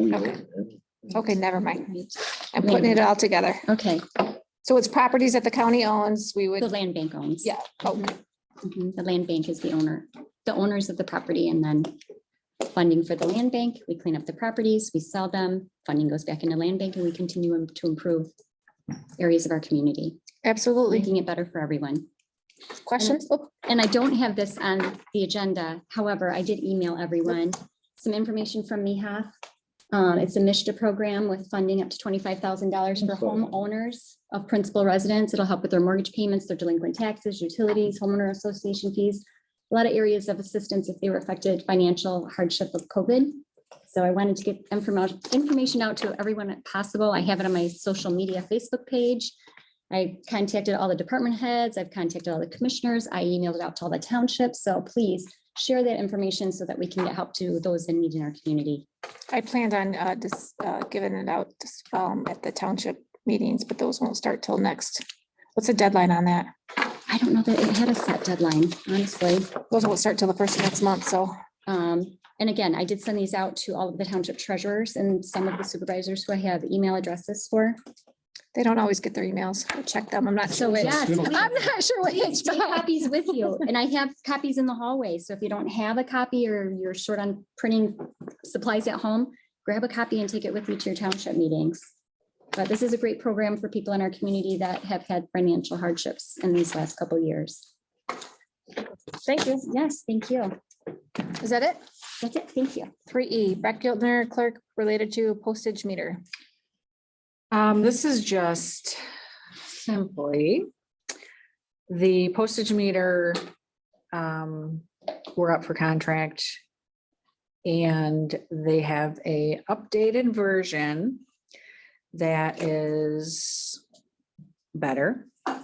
Okay. Okay, never mind. Right. I'm putting it all together. Okay, So it's properties that the county owns, we the would, land bank owns. yeah, oh, Mhm, The land bank is the owner, the owners of the property and then funding for the land bank. We clean up the properties, we sell them, funding goes back into land bank and we continue im- to improve areas of our community, absolutely. making it better for everyone. Questions? Oh, And I don't have this on the agenda. However, I did email everyone some information from MIHAF. Um, it's a Mishta program with funding up to twenty-five thousand dollars for homeowners of principal residents. It'll help with their mortgage payments, their delinquent taxes, utilities, homeowner association fees. A lot of areas of assistance if they were affected financial hardship of COVID. So I wanted to get information, information out to everyone possible. I have it on my social media Facebook page. I contacted all the department heads, I've contacted all the commissioners, I emailed it out to all the townships, so please share that information so that we can get help to those in need in our community. I planned on uh, just uh, giving it out just, um, at the township meetings, but those won't start till next. What's the deadline on that? I don't know that it had a set deadline, honestly. Those won't start till the first of next month, so Um, and again, I did send these out to all of the township treasurers and some of the supervisors who I have email addresses for. they don't always get their emails. I Check them. I'm not sure. So it- which- yes, Yes. I'm not sure what it's Take copies with you. And I have copies in the hallway. So if you don't have a copy or you're short on printing supplies at home, grab a copy and take it with you to your township meetings. But this is a great program for people in our community that have had financial hardships in these last couple years. Thank you. Yes, thank you. Is that it? That's it. Thank you. Three E, Brett Giltner, clerk related to postage meter. Um, this is just simply the postage meter, um, we're up for contract. And they have a updated version that is better uh,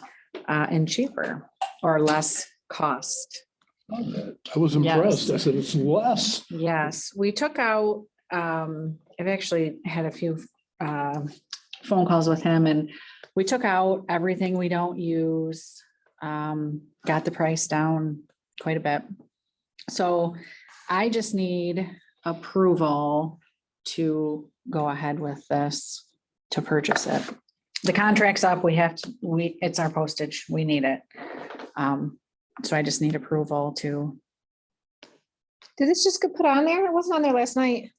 and cheaper or less cost. I was impressed. I said, it's less. Yes, we took out, um, I've actually had a few, um, phone calls with him and we took out everything we don't use. Um, got the price down quite a bit. So I just need approval to go ahead with this, to purchase it. The contract's up, we have, to. we, it's our postage, we need it. Um, so I just need approval to Did this just get put on there? It wasn't on there last night.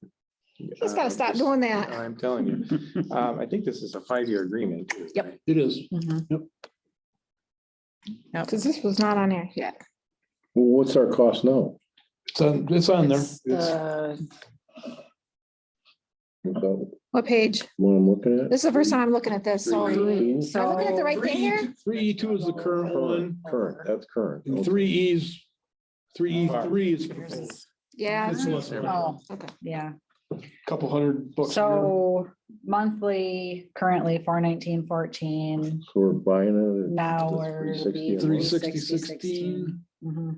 He's gotta Uh, stop this- doing that. I'm telling you, um, I think this is a five-year agreement. Yep. It is. Cause this was not on there yet. What's our cost now? It's on, it's on there. It's uh, the- About What page? what I'm looking at? This is the first time I'm looking at this, so. Am I looking at the right thing here? Three E two is the current one, Current, that's current. and Okay. three E's, three E three is proposed. Yeah. It's less than a Oh, Okay. yeah. couple hundred bucks. more. So monthly, currently four nineteen fourteen, So we're buying it. at now the we're. 360 Three amount. sixty sixteen. Mm-hmm.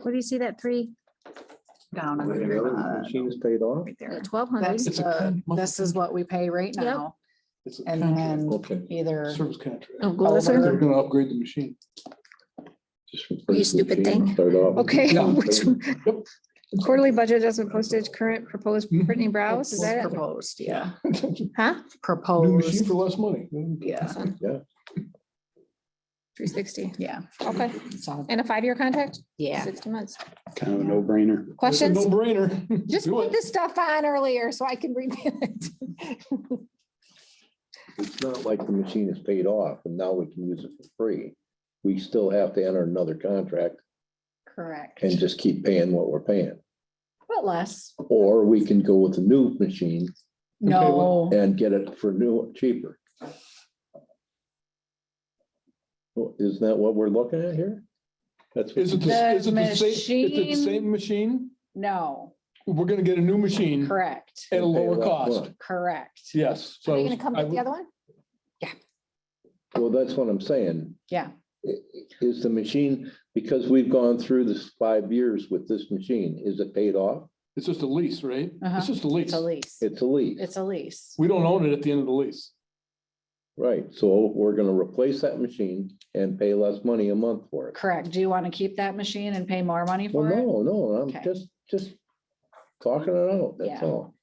Where do you see that three? Down. on And the the other bottom, Machine's paid off? right there. Twelve hundred. That's It's a the, con- this is what we pay right Yep. now, It's a and contract, then Okay. either, Service contract. Oh, go this way. They're gonna upgrade the machine. Just replace the stupid machine, thing. Start off. Okay. Yeah. which- Yep. Mm-hmm. Quarterly budget adjustment postage, current proposed Brittany Browse, is it's that it? proposed, yeah, Huh? New machine for proposed, less money. Oh, yeah, Three sixty, yeah, okay. so, And a five-year contract? yeah. Sixty months. Kind of a no-brainer. Questions? No brainer. Just put this stuff on earlier so I can review it. It's not like the machine is paid off and now we can use it for free. We still have to enter another contract Correct, and just keep paying what we're paying. but less, Or we can go with a new machine no, and get it for new, cheaper. Well, Isn't that what we're looking at here? That's, Is it, what- the- The is it the same, is it the machine- same machine? no, We're gonna get a new machine correct, at a lower cost. correct, Yes, so. Are you gonna come I with the would- other one? well, that's what I'm saying. yeah. I- Is the machine, because we've gone through this five years with this machine, is it paid off? It's just a lease, right? Uh-huh. It's just a lease. It's a lease. It's a lease, It's a lease. We don't own it at the end of the lease. right? So we're gonna replace that machine and pay less money a month for it. Correct. Do you want to keep that machine and pay more money Well, for it? no, no, I'm Okay. just, just talking it out, that's Yeah. all.